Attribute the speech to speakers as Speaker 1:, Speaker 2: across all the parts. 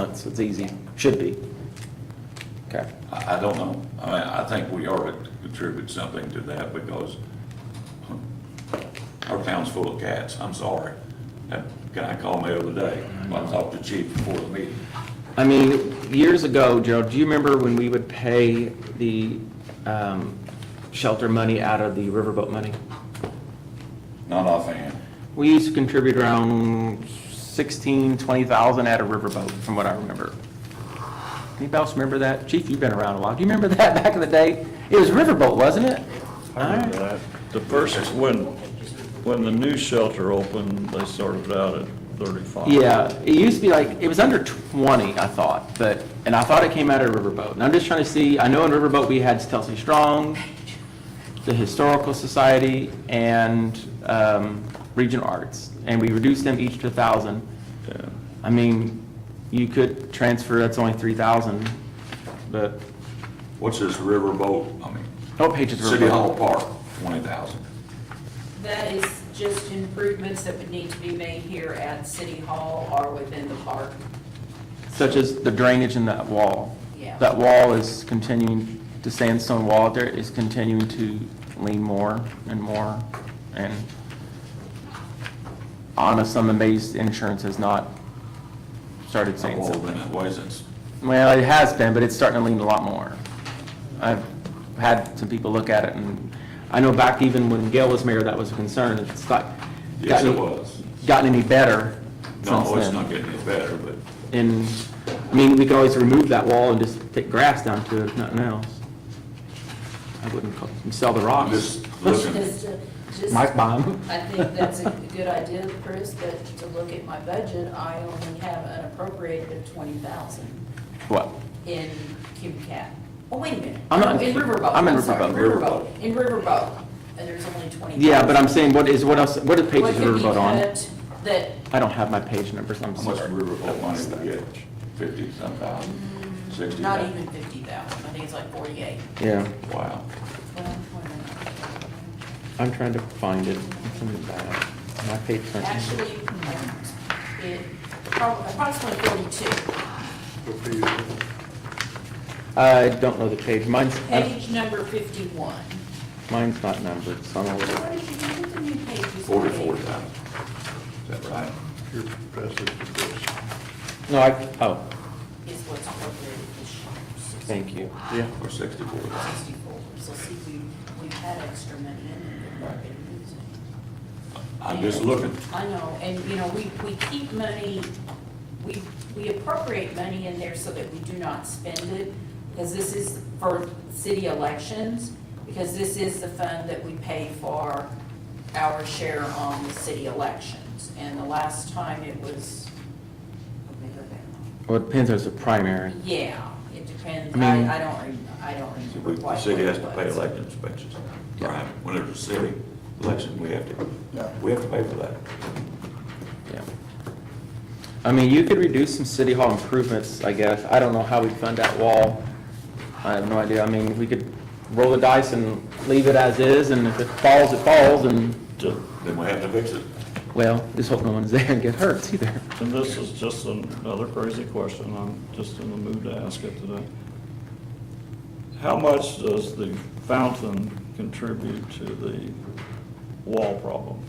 Speaker 1: months, it's easy, should be. Okay,
Speaker 2: I, I don't know. I mean, I think we ought to contribute something to that because our town's full of cats. I'm sorry. Uh, That guy called me the other day. I talked to chief before the meeting.
Speaker 1: I mean, years ago, Gerald, do you remember when we would pay the um, shelter money out of the riverboat money?
Speaker 2: Not offhand.
Speaker 1: We used to contribute around 16, 20,000 out of riverboat, from what I remember. Anybody else remember that? Chief, you've been around a while. Do you remember that back in the day? It was riverboat, wasn't it?
Speaker 3: I remember that. The first, when, when the new shelter opened, they started out at 35.
Speaker 1: Yeah, it used to be like, it was under 20, I thought, but, and I thought it came out of Riverboat. And I'm just trying to see, I know in Riverboat, we had Stelsey Strong, the Historical Society, and um, Region Arts, and we reduced them each to 1,000.
Speaker 3: Yeah.
Speaker 1: I mean, you could transfer, that's only 3,000, but,
Speaker 2: What's this riverboat? I mean,
Speaker 1: oh, Pages
Speaker 2: City Hall
Speaker 1: Riverboat.
Speaker 2: Park, twenty thousand.
Speaker 4: That is just improvements that would need to be made here at City Hall or within the park.
Speaker 1: Such as the drainage in that wall.
Speaker 4: Yeah.
Speaker 1: That wall is continuing, the sandstone wall out there is continuing to lean more and more. And honest, I'm amazed insurance has not started
Speaker 2: I've
Speaker 1: saying
Speaker 2: been
Speaker 1: something.
Speaker 2: that way since
Speaker 1: Well, it has been, but it's starting to lean a lot more. I've had some people look at it and I know back even when Gail was mayor, that was a concern. It's not
Speaker 2: Yes, it
Speaker 1: gotten,
Speaker 2: was.
Speaker 1: gotten any better since then.
Speaker 2: No, it's not getting any better, but
Speaker 1: And, I mean, we could always remove that wall and just take grass down to it, if nothing else. I wouldn't call- sell the
Speaker 2: I'm
Speaker 1: rocks.
Speaker 2: just looking.
Speaker 4: Just, to- just,
Speaker 1: Mike
Speaker 4: I
Speaker 1: bomb.
Speaker 4: think that's a good idea, Chris, but to look at my budget, I only have an appropriated twenty thousand
Speaker 1: What?
Speaker 4: in cube cap. Oh, wait a minute.
Speaker 1: I'm not-
Speaker 4: In Riverboat.
Speaker 1: I'm in
Speaker 4: sorry,
Speaker 1: Riverboat.
Speaker 4: Riverboat, in Riverboat, and there's only twenty.
Speaker 1: Yeah, but I'm saying, what is, what else, what are the pages of Riverboat on?
Speaker 4: That,
Speaker 1: I don't have my page numbers, I'm
Speaker 2: How much
Speaker 1: sorry.
Speaker 2: riverboat money do we get? Fifty some thousand, sixty
Speaker 4: not
Speaker 2: thousand?
Speaker 4: even fifty thousand, I think it's like forty-eight.
Speaker 1: Yeah,
Speaker 2: Wow.
Speaker 1: I'm trying to find it. It's in the back. My page number.
Speaker 4: Actually, it, prob- approximately forty-two.
Speaker 1: I don't know the page, mine's,
Speaker 4: Page number fifty-one.
Speaker 1: mine's not numbered, so I'm a little.
Speaker 4: Where did you get the new pages?
Speaker 2: Forty-four thousand. Is that right?
Speaker 5: Your passage of this.
Speaker 1: No, I, oh,
Speaker 4: Is what's appropriated this year.
Speaker 1: thank you. Yeah.
Speaker 2: Or sixty-four thousand?
Speaker 4: Sixty-four, so see, we, we've had extra money in there. that we've been using.
Speaker 2: I'm just looking.
Speaker 4: I know, and, you know, we, we keep money, we, we appropriate money in there so that we do not spend it, because this is for city elections, because this is the fund that we pay for our share on the city elections. And the last time it was, let me go back.
Speaker 1: Well, it depends, there's a primary.
Speaker 4: yeah, it depends,
Speaker 1: I mean-
Speaker 4: I, I don't, rem- I don't remember
Speaker 2: We-
Speaker 4: quite
Speaker 2: The city
Speaker 4: what it
Speaker 2: has to pay
Speaker 4: was.
Speaker 2: election expenses.
Speaker 1: Yeah.
Speaker 2: Right, when there's a city election, we have to, we have to pay for that.
Speaker 1: Yeah. I mean, you could reduce some city hall improvements, I guess. I don't know how we'd fund that wall. I have no idea. I mean, we could roll the dice and leave it as is, and if it falls, it falls, and,
Speaker 3: Ju-
Speaker 2: Then we have to fix it.
Speaker 1: well, just hope no one's there and get hurt either.
Speaker 3: And this is just another crazy question, I'm just in the mood to ask it today. How much does the fountain contribute to the wall problem?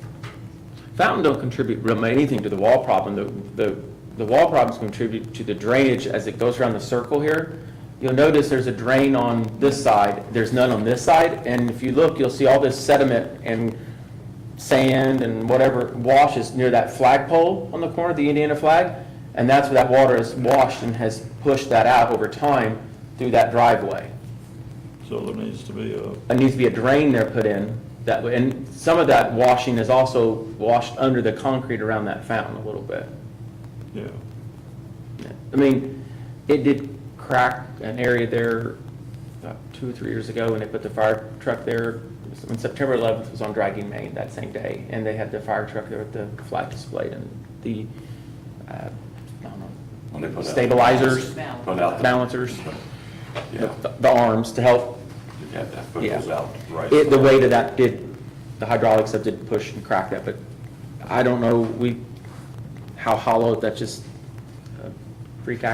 Speaker 1: Fountain don't contribute really anything to the wall problem. The, the, the wall problems contribute to the drainage as it goes around the circle here. You'll notice there's a drain on this side, there's none on this side, and if you look, you'll see all this sediment and sand and whatever washes near that flagpole on the corner, the Indiana flag, and that's where that water is washed and has pushed that out over time through that driveway
Speaker 3: So there needs to be a,
Speaker 1: there needs to be a drain there put in, that, way- and some of that washing is also washed under the concrete around that fountain a little bit.
Speaker 3: yeah,
Speaker 1: I mean, it did crack an area there about two or three years ago, and they put the fire truck there. When September 11th was on Dragging Main that same day, and they had the fire truck there with the flag displayed and the, uh, I don't know,
Speaker 2: When they put out-
Speaker 1: stabilizers,
Speaker 4: Balance.
Speaker 2: Put out. the-
Speaker 1: balancers,
Speaker 2: Yeah,
Speaker 1: the the arms to help
Speaker 2: you have to put
Speaker 1: Yeah.
Speaker 2: those out, right?
Speaker 1: It, the weight of that did, the hydraulics of did push and crack that, but I don't know, we, how hollow, that's just a uh, freak